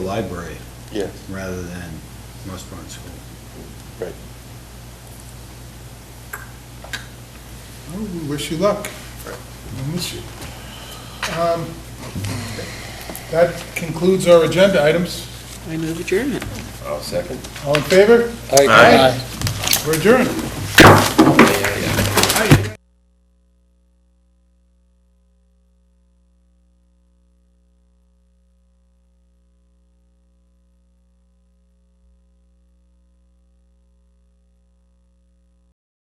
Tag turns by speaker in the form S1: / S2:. S1: library
S2: Yeah,
S1: rather than West Barnes School.
S2: right.
S3: Well, We wish you luck. We'll miss you. Um, That concludes our agenda items.
S4: I move adjournment.
S2: I'll second.
S3: All in favor?
S2: Aye.
S3: We're adjourned.